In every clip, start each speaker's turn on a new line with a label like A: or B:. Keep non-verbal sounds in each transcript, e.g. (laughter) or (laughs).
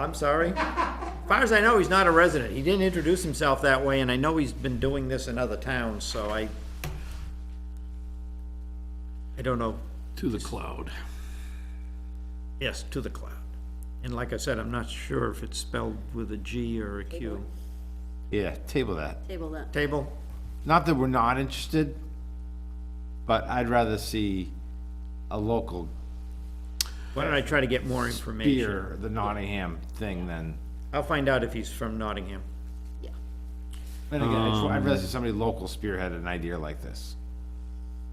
A: I'm
B: (laughs)
A: sorry? Far as I know, he's not a resident. He didn't introduce himself that way, and I know he's been doing this in other towns, so I, I don't know,
C: to the cloud.
A: yes, to the cloud. And like I said, I'm not sure if it's spelled with a G or a Q.
D: Yeah, table that.
B: Table that.
A: Table?
D: Not that we're not interested, but I'd rather see a local
A: Why don't I try to get more information?
D: beer, the Nottingham thing than,
A: I'll find out if he's from
C: (laughs)
A: Nottingham.
B: Yeah.
D: then again, I'd I'd rather see somebody local spearhead an idea like this.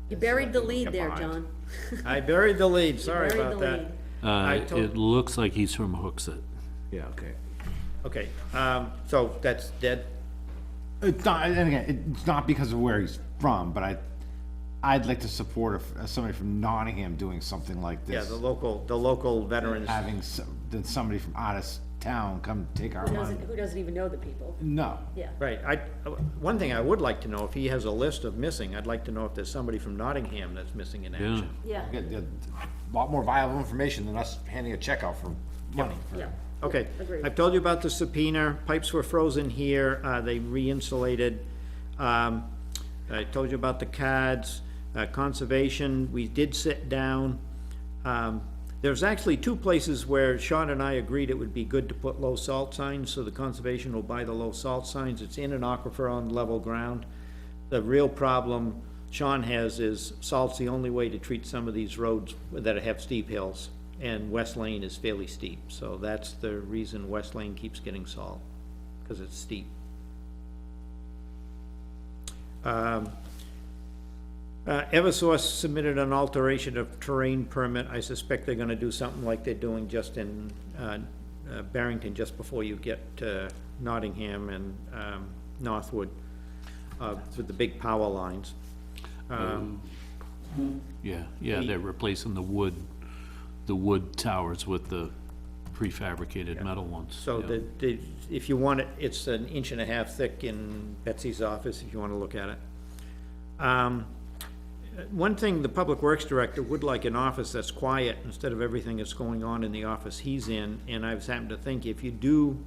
B: You buried the lead
D: get
B: there,
D: behind.
B: John.
A: I buried the lead, sorry
B: buried
A: about
B: the
A: that.
B: lead.
A: I
C: Uh,
A: told-
C: it looks like he's from Hooksett.
D: Yeah, okay.
A: Okay, um, so that's dead?
D: It's not, and again, it's not because of where he's from, but I, I'd like to support if- uh, somebody from Nottingham doing something like
A: Yeah,
D: this.
A: the local, the local veterans.
D: Having some, then somebody from out of s- town come take our
B: Who
D: money.
B: doesn't, who doesn't even know the people?
D: No,
B: Yeah.
A: Right, I, uh, one thing I would like to know, if he has a list of missing, I'd like to know if there's somebody from Nottingham that's missing in
C: Yeah,
A: action.
B: Yeah.
D: a lot more viable information than us handing a check out for money. for-
B: Yeah.
A: Okay,
B: Agreed.
A: I've told you about the subpoena, pipes were frozen here, uh, they re-insulated. Um, I told you about the CADs, uh, conservation, we did sit down. Um, there's actually two places where Sean and I agreed it would be good to put low salt signs, so the conservation will buy the low salt signs, it's in an aquifer on level ground. The real problem Sean has is salt's the only way to treat some of these roads that have steep hills. And West Lane is fairly steep, so that's the reason West Lane keeps getting salt, because it's steep. Um, uh, Eversource submitted an alteration of terrain permit. I suspect they're gonna do something like they're doing just in, uh, uh, Barrington, just before you get to Nottingham and, um, Northwood, uh, with the big power lines.
C: yeah, yeah, they're replacing the wood, the wood towers with the prefabricated metal ones.
A: So
C: yeah.
A: the, the, if you want it, it's an inch and a half thick in Betsy's office, if you wanna look at it. Um, one thing, the Public Works Director would like an office that's quiet instead of everything that's going on in the office he's in. And I was happened to think, if you do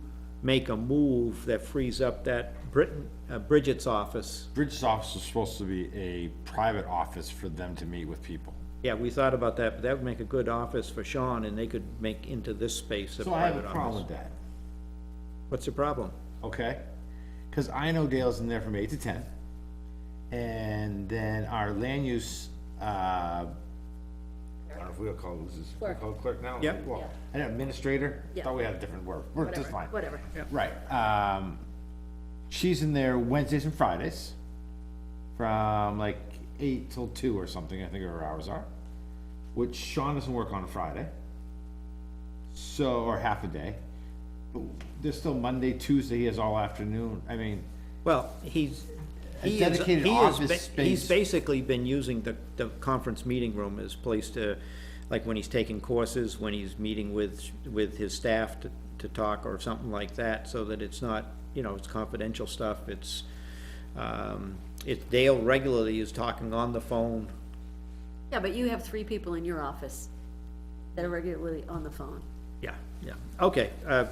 A: make a move that frees up that Britton, uh, Bridget's office,
D: Bridge's office is supposed to be a private office for them to meet with people.
A: yeah, we thought about that, but that would make a good office for Sean, and they could make into this space a
D: So I have a
A: private
D: problem
A: office.
D: with that,
A: What's the problem?
D: okay? Cause I know Dale's in there from eight to ten. And then our land use, uh, I don't know if we would call this, is we
B: Clerk.
D: call it clerk now?
A: Yep.
D: Well,
B: Yeah.
D: An administrator,
B: Yeah.
D: thought we had a different word, we're just
B: Whatever.
D: fine.
B: Whatever.
D: Right, um, she's in there Wednesdays and Fridays from like eight till two or something, I think her hours are. Which Sean doesn't work on a Friday. So, or half a day. There's still Monday, Tuesday, he has all afternoon, I mean,
A: Well, he's,
D: A
A: he is,
D: dedicated
A: he is,
D: office
A: ba- he's
D: space.
A: basically been using the, the conference meeting room as place to, like when he's taking courses, when he's meeting with, with his staff to, to talk or something like that, so that it's not, you know, it's confidential stuff, it's, um, it's Dale regularly is talking on the phone.
B: Yeah, but you have three people in your office that are regularly on the phone.
A: Yeah, yeah, okay, uh,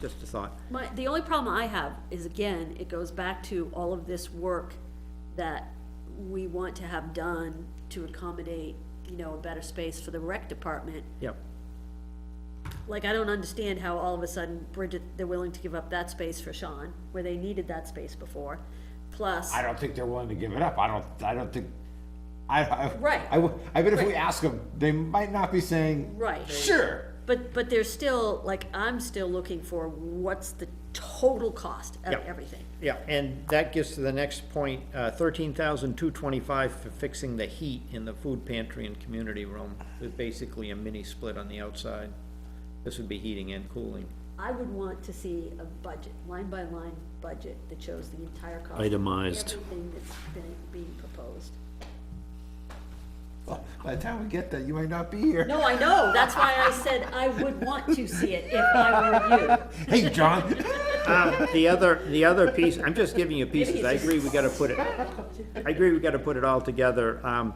A: just a thought.
B: My, the only problem I have is, again, it goes back to all of this work that we want to have done to accommodate, you know, a better space for the rec department.
A: Yep,
B: Like, I don't understand how all of a sudden Bridget, they're willing to give up that space for Sean, where they needed that space before, plus.
D: I don't think they're willing to give it up, I don't, I don't think, I, I.
B: Right.
D: I, would- I bet if we
B: Right.
D: ask them, they might not be saying.
B: Right.
D: Sure,
B: But, but there's still, like, I'm still looking for what's the total cost of
A: Yep.
B: everything.
A: yeah, and that gets to the next point, uh, thirteen thousand two twenty-five for fixing the heat in the food pantry and community room. There's basically a mini split on the outside. This would be heating and cooling.
B: I would want to see a budget, line by line budget that shows the entire cost. of
C: Itemized.
B: Everything that's been, being proposed.
D: by the time we get that, you might not be here.
B: No, I know, that's why I said I would want to see it if I were you.
D: Hey,
B: (laughs)
D: John.
A: Um, the other, the other piece, I'm just giving you pieces, I agree, we gotta put it, I agree, we gotta put it all together. Um,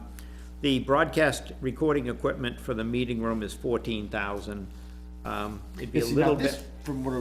A: the broadcast recording equipment for the meeting room is fourteen thousand. Um, it'd be a
D: See, now
A: little
D: this-
A: bit,
D: from what